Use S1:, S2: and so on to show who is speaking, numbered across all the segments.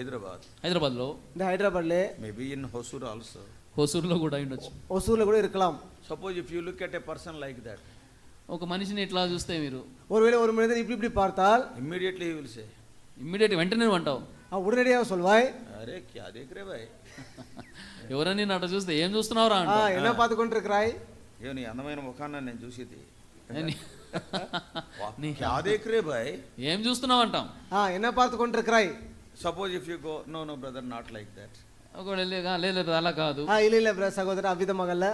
S1: Hyderabad,
S2: హైదరాబాద్లో
S3: இந்த ஹைதராபாத்லே
S1: maybe in Hosur also.
S2: హోసూరులో కూడా అయి ఉండొచ్చు
S3: ஒசூரில் கூட இருக்கலாம்
S1: Suppose if you look at a person like that,
S2: ఒక మనిషిని ఇట్లా చూస్తే మీరు
S3: ஒருவேளை ஒரு மனிதன் இப்படி இப்படி பார்த்தால்
S1: immediately he will say,
S2: immediate వెంటనే నువ్వు అంటావు
S3: அவன் உடனடியாக சொல்வாய்
S1: అరే క్యా దేఖ్ రే భాయ్
S2: ఎవరని అట్లా చూస్తే ఏం చూస్తున్నావురా
S3: "ஆ,
S2: అంటావు
S3: என்ன பார்த்து கொண்டிருக்கிறாய்
S1: ఏ నీ అందమైన ముఖాన్ని నేను చూసేది
S2: అని-
S1: వా, క్యా దేఖ్ రే భాయ్
S2: ఏం చూస్తున్నావు అంటాం
S3: ஆ என்ன பார்த்து கொண்டிருக்கிறாய்
S1: suppose if you go no no brother not like that
S2: ఒకవేళ లే- ఆ, లేదు లేదు, అలా కాదు
S3: ஆ இல்லை இல்லை பிர- సహోదరా అవిధమగల్ల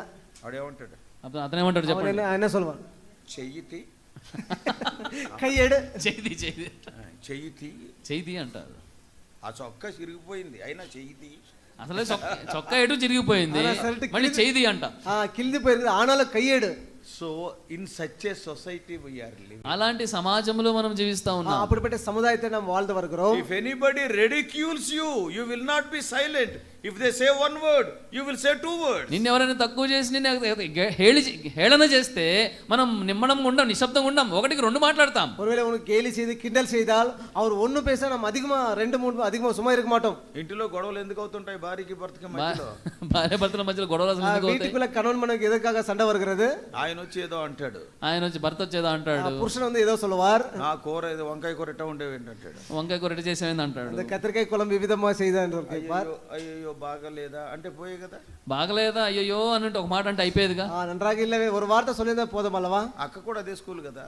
S1: వాడేమంటాడు
S2: అతను అతనేమంటాడు
S3: அவன்
S2: చెప్పండి
S3: என்ன என்ன சொல்வான்
S1: చెయ్యితి
S3: கையெடு
S2: చేతి చేతి
S1: చెయ్యితి
S2: చేతి అంటారు
S1: ఆ చొక్కా చిరిగిపోయింది అయినా చెయ్యితి
S2: అసలే చొక్క- చొక్కా ఎటు చిరిగిపోయింది
S3: అలా shirt కి-
S2: మళ్ళీ చేతి అంట
S3: ஆ கிழிந்து போயிருக்கு ஆனாலும் கையேடு
S1: so in such a society we are live
S2: అలాంటి సమాజంలో మనం జీవిస్తా
S3: ஆ,
S2: ఉన్నాం
S3: அப்படிப்பட்ட சமுதாயத்தை நாம் வாழ்ந்து வருகிறோம்
S1: if anybody ridicules you you will not be silent if they say one word you will say two word
S2: నిన్ను ఎవరైనా తక్కువ చేసి నిన్ను హే- హేళి హేళన చేస్తే మనం నిమ్మడం ఉండం నిశ్శబ్దంగా ఉండం ఒకటికి రెండు మాట్లాడతాం
S3: ஒருவேளை உனக்கு கேலி செய்து கிண்டல் செய்தால் அவர் ஒன்று பேச நம்ம அதிகமா ரெண்டு மூணு அதிகமா சும்மா இருக்க மாட்டோம்
S1: ఇంటిలో గొడవలు ఎందుకు అవుతుంటాయి భార్యకి భర్తకి
S2: భా-
S1: మధ్యలో
S2: భార్య భర్తల మధ్యలో గొడవలు అసలు
S3: ஆ,
S2: ఎందుకు అవుతాయి
S3: வீட்டுக்குள்ள கணவன் மனைவிக்கு எதற்காக சண்டை வருகிறது
S1: ఆయన వచ్చి ఏదో అంటాడు
S2: ఆయన వచ్చి భర్త వచ్చేదా
S3: ஆ,
S2: అంటాడు
S3: புருஷன் வந்து ஏதோ சொல்லுவார்
S1: నా కూర ఏదో వంకాయ కూర ఎట్టా ఉండేవి ఏంటంటాడు
S2: వంకాయ కూర చేసేది అంటాడు
S3: அந்த கத்திரிக்காய் குழம்பு விதமா செய்தான் கேட்பார்
S1: అయ్యో అయ్యో బాగలేదా అంటే పోయే కదా
S2: బాగలేదా అయ్యో అని అంటే ఒక మాట అంటే అయిపోయేదిగా
S3: ஆ, நன்றாக இல்லவே ஒரு வார்த்தை சொல்லியிருந்தா போதும் அல்லவா
S1: అక్క కూడా అదే స్కూల్ కదా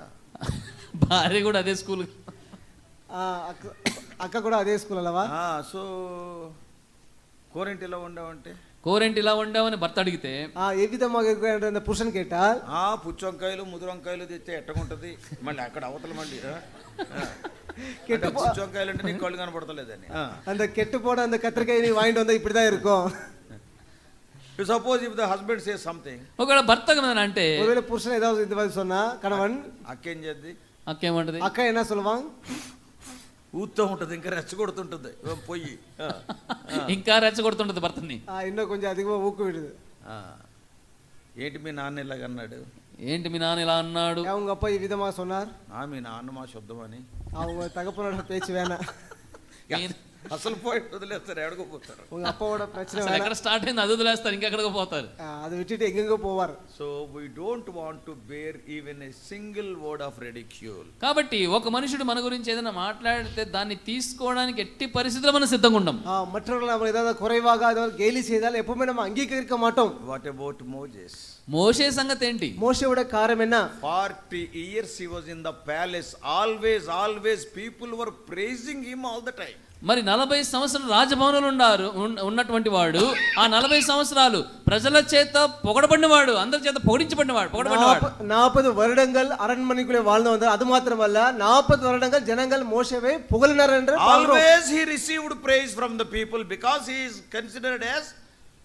S2: భార్య కూడా అదే స్కూల్
S3: ஆ, அக்க- அக்கா கூட அதே ஸ்கூல் அல்லவா
S1: సో కూరేంటి ఇలా ఉండవంటే
S2: కూరేంటి ఇలా వండావని భర్త అడిగితే
S3: ஆ, எவ்விதமாக இருக்கிற என்று அந்த புருஷன் கேட்டால்
S1: ఆ పుచ్చొంకాయలు ముదురొంకాయలు తెస్తే ఎట్టగుంటది మళ్ళీ అక్కడ అవతల మళ్ళీ ఆ? ఆ. అంటే పుచ్చొంకాయలు అంటే నీకు కళ్ళు కనపడతలేదని
S3: அந்த கெட்டு போன அந்த கத்திரிக்காய் நீ வாங்கிட்டு வந்தா இப்படிதான் இருக்கும்
S1: suppose if the husband say something
S2: ఒకవేళ భర్త ఏమైనా అంటే
S3: ஒருவேளை புருஷன் ஏதாவது இது மாதிரி சொன்னா கணவன்
S1: అక్కేం చేద్ది
S2: అక్కేమంటది
S3: அக்கா என்ன சொல்லுவான்
S1: ఊతో ఉంటుంది ఇంకా రెచ్చగొడుతుంటుంది ఓ పొయ్యి ఆ.
S2: ఇంకా రెచ్చగొడుతుంటది భర్తని
S3: ஆ, இன்னும் கொஞ்சம் அதிகமா ஊக்குவிடுது
S1: ఆ. ఏంటి మీ నాన్న ఇలాగన్నాడు
S2: ఏంటి మీ నాన్న ఇలా అన్నాడు
S3: அவங்க அப்பா இவ்விதமா சொன்னார்
S1: ఆ మీ నాన్న మా శుద్ధం అని
S3: அவங்க தகப்பனோட பேச்சு வேணாம்
S1: అసలు పాయింట్ వదిలేస్తారు ఎడకపోతారు
S3: உங்க அப்பாவோட பிரச்சனை
S2: అసలు
S3: வேணாம்
S2: ఎక్కడ స్టార్ట్ అయింది అది వదిలేస్తారు ఇంకెక్కడికి పోతారు
S3: ஆ, அதை விட்டுட்டு எங்கெங்க போவார்
S1: so we don't want to bear even a single word of ridicule
S2: కాబట్టి ఒక మనుషుడు మన గురించి ఏదైనా మాట్లాడితే దాన్ని తీసుకోవడానికి ఎట్టి పరిస్థితుల్లో మనం సిద్ధంగా ఉండం
S3: ஆ, மற்றவர்கள் நம்ம ஏதாவது குறைவாக அதாவது கேலி செய்தால் எப்பவுமே நம்ம அங்கீகரிக்க மாட்டோம்
S1: వాట్ అబౌట్ మోజెస్
S2: మోసే సంగతి ఏంటి
S3: மோசையோட కారణం என்ன
S1: forty years he was in the palace always always people were praising him all the time
S2: మరి నలభై సంవత్సరాలు రాజభవనంలో ఉండారు ఉన్న- ఉన్నటువంటి వాడు ఆ నలభై సంవత్సరాలు ప్రజల చేత పొగడబడినవాడు అందరి చేత పొగిడించబడినవాడు పొగడబడినవాడు
S3: நாப்ப- நாற்பது வருடங்கள் அரண்மனைக்குள்ளே வாழ்ந்து வந்தார் அது மாத்திரமல்ல நாற்பது வருடங்கள் ஜனங்கள் மோசேவை புகழினர் என்று பார்க்கிறோம்.
S1: Always he received praise from the people because he is considered as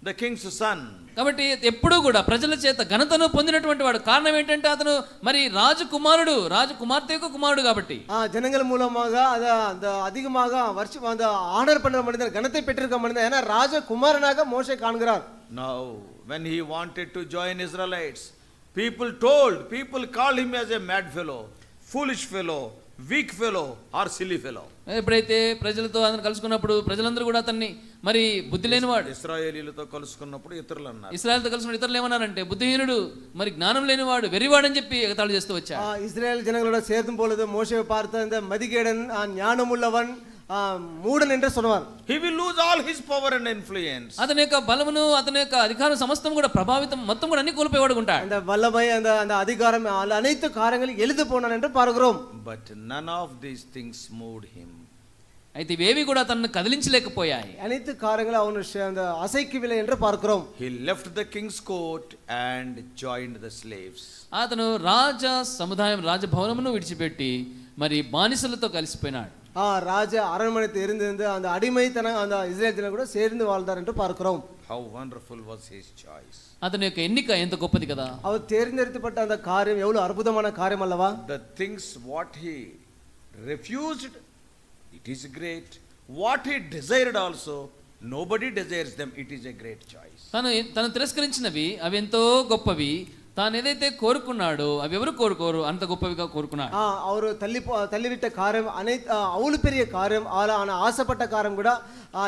S1: the king's son
S2: కాబట్టి ఎప్పుడూ కూడా ప్రజల చేత ఘనతను పొందినటువంటి వాడు కారణం ఏంటంటే అతను మరి రాజకుమారుడు రాజకుమార్తె యొక్క కుమారుడు కాబట్టి
S3: ஆ, ஜனங்கள் மூலமாக அத அந்த அதிகமாக வருஷம் அந்த ஆனர் பண்ற மனிதர் கணத்தை பெற்றிருக்க மனிதர் ஏன்னா ராஜகுமாரனாக மோசே காண்கிறார்
S1: now when he wanted to join Israelites people told people call him as a mad fellow foolish fellow weak fellow or silly fellow
S2: ఎప్పుడైతే ప్రజలతో అతను కలుసుకున్నప్పుడు ప్రజలందరూ కూడా అతన్ని మరి బుద్ధి లేనివాడు
S1: ఇస్రాయేలీలతో కలుసుకున్నప్పుడు ఇతరులు అన్నారు
S2: ఇస్రాయల్తో కలిసిన ఇతరులు ఏమన్నారంటే బుద్ధిహీనుడు మరి జ్ఞానం లేనివాడు వెర్రివాడని చెప్పి ఎగతాళి చేస్తూ వచ్చాడు
S3: ஆ, இஸ்ரேல் ஜனங்களோட சேர்த்தும் பொழுது மோசேவை பார்த்த இந்த மதிகேடன் ஆ, ஞானமுள்ளவன் ஆ, மூடன் என்று சொன்னார்
S1: he will lose all his power and influence
S2: అతని యొక్క బలమును అతని యొక్క అధికారం సమస్తం కూడా ప్రభావితం మొత్తం కూడా అన్ని కోల్పోయేవాడు ఉంటాడు
S3: அந்த வல்லமை அந்த அந்த அதிகாரம் அந்த அனைத்து காரியங்களும் எழுது போனான் என்று பார்க்கிறோம்
S1: but none of these things moved him
S2: అయితే ఇవేవి కూడా తనను కదిలించలేకపోయాయి
S3: அனைத்து காரியங்களும் அவன் ச- அந்த அசைக்கவில்லை என்று பார்க்கிறோம்
S1: he left the king's court and joined the slaves
S2: అతను రాజ సముదాయం రాజభవనమును విడిచిపెట్టి మరి బానిసలతో కలిసిపోయినాడు
S3: ஆ, ராஜ அரண்மனையில் இருந்திருந்து அந்த அடிமைத்தனம் அந்த இஸ்ரேல் ஜனங்கள் கூட சேர்ந்து வாழ்ந்தார் என்று பார்க்கிறோம்
S1: how wonderful was his choice
S2: అతని యొక్క ఎన్నిక ఎంత గొప్పది కదా
S3: அவர் தேர்ந்தெடுக்கப்பட்ட அந்த காரியம் எவ்வளவு அற்புதமான காரியம் அல்லவா
S1: the things what he refused it is great what he desired also nobody desires them it is a great choice
S2: తను తను తిరస్కరించినవి అవి ఎంతో గొప్పవి తాను ఏదైతే కోరుకున్నాడో అవి ఎవరు కోరుకోరు అంత గొప్పవిగా కోరుకున్నాడు
S3: ஆ, அவரு தள்ளி போ- தள்ளிவிட்ட காரியம் அனைத்து அவ்வளவு பெரிய காரியம் ஆனா ஆனா ஆசைப்பட்ட காரியம் கூட ஆ,